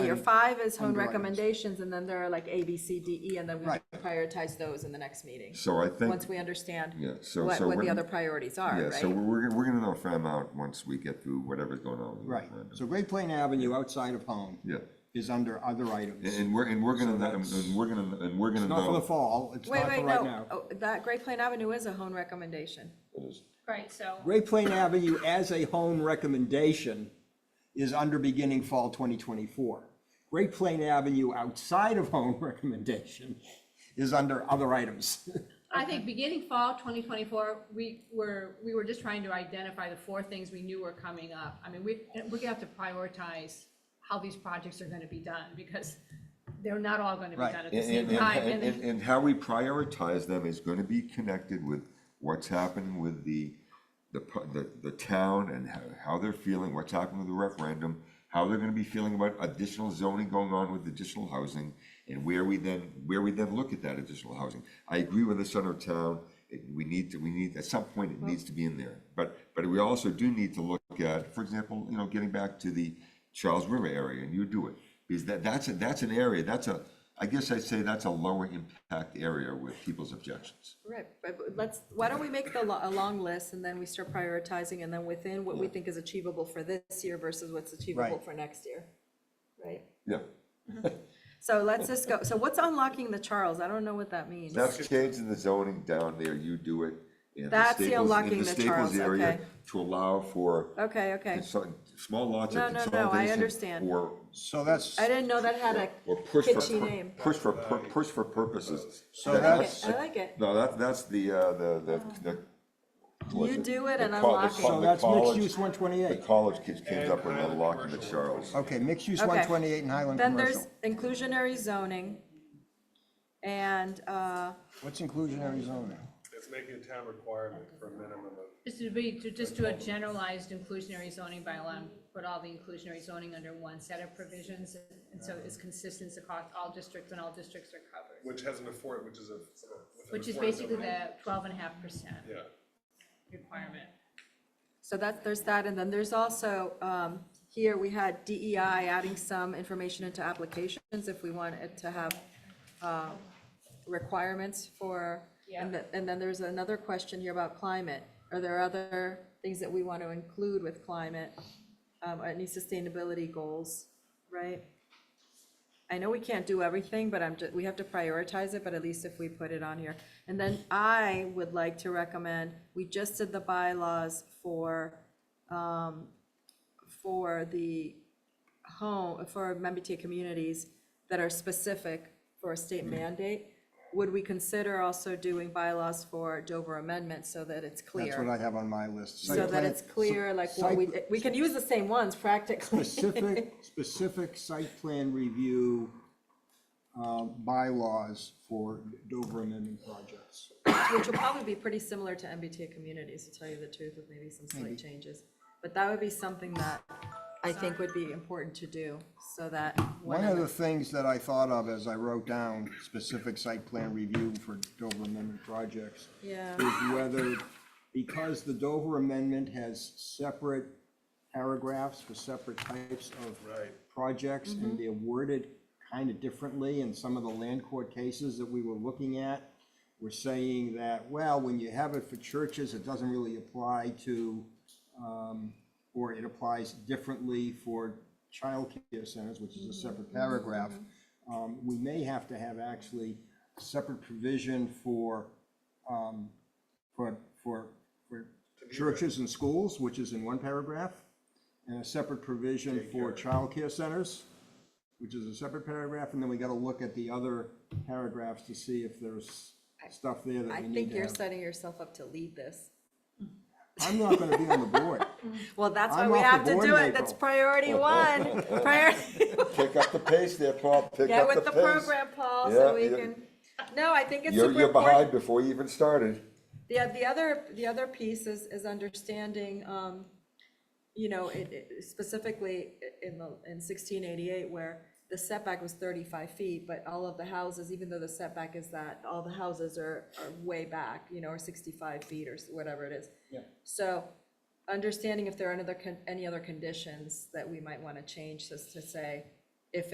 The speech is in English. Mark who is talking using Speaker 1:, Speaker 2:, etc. Speaker 1: later.
Speaker 2: and
Speaker 1: Five is hone
Speaker 2: underwriters.
Speaker 1: recommendations, and then there are like A, B, C, D, E, and then we
Speaker 2: Right.
Speaker 1: prioritize those in the next meeting.
Speaker 3: So I think-
Speaker 1: Once we understand
Speaker 3: Yeah, so-
Speaker 1: what,
Speaker 3: so
Speaker 1: what the
Speaker 3: we're-
Speaker 1: other priorities are,
Speaker 3: Yeah, so
Speaker 1: right?
Speaker 3: we're, we're gonna know a fair amount once we get through whatever's going on. with the
Speaker 2: Right,
Speaker 3: referendum.
Speaker 2: so Great Plain Avenue outside of home
Speaker 3: Uh, Yeah,
Speaker 2: is under other
Speaker 3: and,
Speaker 2: items.
Speaker 3: and we're, and we're gonna, know- and we're gonna, and we're gonna know.
Speaker 2: Not for the fall, it's
Speaker 1: Wait,
Speaker 2: not
Speaker 1: wait,
Speaker 2: for
Speaker 1: no,
Speaker 2: right now.
Speaker 1: Oh, that Great Plain Avenue is a hone recommendation.
Speaker 4: Right, so,
Speaker 2: Great Plain Avenue as a home recommendation is under beginning fall 2024. Great Plain Avenue outside of home recommendation is under other items.
Speaker 4: I think beginning fall twenty twenty-four, we were, we were just trying to identify the four things we knew were coming up. I mean, we, we're gonna have to prioritize how these projects are gonna be done, because they're not all gonna be
Speaker 2: Right.
Speaker 4: done at the
Speaker 3: And,
Speaker 4: same
Speaker 3: and-
Speaker 4: time.
Speaker 3: and, and,
Speaker 4: And
Speaker 3: and how we prioritize them is gonna be connected with what's happening with the, the, pu- the, the town and how, how they're feeling, what's happening with the referendum, how they're gonna be feeling about additional zoning going on with additional housing, and where we then, where we then look at that additional housing. I agree with the center of town, it, we need to, we need, at some point, it needs to be in there. But, but we also do need to look at, for example, you know, getting back to the Charles River area, and you do it. Because that, that's, a- that's an area, that's a, I guess I'd say that's a lower impact area with people's objections.
Speaker 1: Right, but but let's, why don't we make the, lo- a long list, and then we start prioritizing, and then within what we think is achievable for this year versus what's achievable
Speaker 2: Right.
Speaker 1: for next year, right?
Speaker 3: Yeah.
Speaker 1: So let's just go, so what's unlocking the Charles? I don't know what that means.
Speaker 3: That's changing the zoning down there, you do it. in
Speaker 1: That's the
Speaker 3: Staples- in
Speaker 1: unlocking the
Speaker 3: Staples
Speaker 1: Charles,
Speaker 3: area
Speaker 1: okay.
Speaker 3: To allow for
Speaker 1: Okay, okay.
Speaker 3: consol- small lots
Speaker 1: No,
Speaker 3: of
Speaker 1: no, no, I
Speaker 3: consolidation.
Speaker 1: understand.
Speaker 3: Or,
Speaker 2: So that's,
Speaker 1: I didn't know that had a
Speaker 3: or push for,
Speaker 1: kitschy
Speaker 3: pur-
Speaker 1: name.
Speaker 3: push for, pur- push for purposes.
Speaker 2: So
Speaker 3: That-
Speaker 1: I like
Speaker 2: that's-
Speaker 1: it, I like it.
Speaker 3: No, that, that's the, uh, the, the, the. what
Speaker 1: Ah. You
Speaker 3: the-
Speaker 1: do it
Speaker 3: the
Speaker 1: and
Speaker 3: co- the
Speaker 1: unlock it.
Speaker 3: co-
Speaker 2: so
Speaker 3: the
Speaker 2: that's mixed
Speaker 3: college-
Speaker 2: use
Speaker 3: The
Speaker 2: 128.
Speaker 3: college kids came up with
Speaker 5: And Highland
Speaker 3: unlocking the
Speaker 5: Commercial
Speaker 3: Charles.
Speaker 2: Okay, mixed use
Speaker 1: Okay.
Speaker 2: 128 and Highland
Speaker 1: Then there's
Speaker 2: Commercial.
Speaker 1: inclusionary zoning and, uh,
Speaker 2: What's inclusionary zoning?
Speaker 5: It's making a town requirement for a minimum of,
Speaker 4: just to be, to just do a generalized inclusionary zoning bylaw, and put all the inclusionary zoning under one set of provisions, and so it's consistent across all districts, and all districts are covered.
Speaker 5: which has an afford, which is a. with an
Speaker 4: Which is
Speaker 5: affordability.
Speaker 4: basically the twelve and a half percent
Speaker 5: Yeah,
Speaker 4: requirement.
Speaker 1: so that, there's that, and then there's also, um, here we had DEI adding some information into applications if we wanted to have, uh, requirements for, and then, and then there's another question here about climate. Are there other things that we want to include with climate, um, any sustainability goals, right? I know we can't do everything, but I'm, ju- we have to prioritize it, but at least if we put it on here. And then I would like to recommend, we just did the bylaws for, um, for the home, for MBTA communities that are specific for a state
Speaker 2: Mm-hmm.
Speaker 1: mandate. Would we consider also doing bylaws for Dover amendments so that it's
Speaker 2: That's what
Speaker 1: clear?
Speaker 2: I have on my list. Site
Speaker 1: So that
Speaker 2: plan-
Speaker 1: it's clear, like, what we, we can use the same ones practically.
Speaker 2: Specific, specific site plan review um, bylaws for Dover amendment projects.
Speaker 1: which will probably be pretty similar to MBTA communities, to tell you the truth, with maybe some slight changes. But that would be something that I think would be important to do, so that
Speaker 2: One of
Speaker 1: when,
Speaker 2: the things that I thought of as I wrote down specific site plan review for Dover Amendment projects
Speaker 1: yeah,
Speaker 2: is whether, because the Dover Amendment has separate paragraphs for separate types of
Speaker 5: Right.
Speaker 2: projects, and they're worded kind of differently, and some of the land court cases that we were looking at were saying that, well, when you have it for churches, it doesn't really apply to, um, or it applies differently for childcare centers, which is a separate paragraph. Um, we may have to have actually separate provision for, um, for, for, for churches and schools, which is in one paragraph, and a separate provision for childcare centers, which is a separate paragraph, and then we gotta look at the other paragraphs to see if there's stuff there that
Speaker 1: I
Speaker 2: we need
Speaker 1: think
Speaker 2: to
Speaker 1: you're
Speaker 2: have.
Speaker 1: setting yourself up to lead this.
Speaker 2: I'm not gonna be on the board.
Speaker 1: Well, that's why
Speaker 2: I'm
Speaker 1: we
Speaker 2: off the
Speaker 1: have to
Speaker 2: board
Speaker 1: do
Speaker 2: in
Speaker 1: it, that's
Speaker 2: April.
Speaker 1: priority one, priority,
Speaker 3: Pick up the pace there, Paul, pick
Speaker 1: get
Speaker 3: up the
Speaker 1: with
Speaker 3: pace.
Speaker 1: the program, Paul,
Speaker 3: Yeah,
Speaker 1: so we
Speaker 3: yeah.
Speaker 1: can, no, I think it's super
Speaker 3: You're,
Speaker 1: important.
Speaker 3: you're behind before you even started.
Speaker 1: The, the other, the other piece is, is understanding, um, you know, it, it- specifically i- in the, in sixteen eighty-eight where the setback was thirty-five feet, but all of the houses, even though the setback is that, all the houses are, are way back, you know, or sixty-five feet or s- whatever it is.
Speaker 2: Yeah.
Speaker 1: So, understanding if there are another, con- any other conditions that we might wanna change, just to say,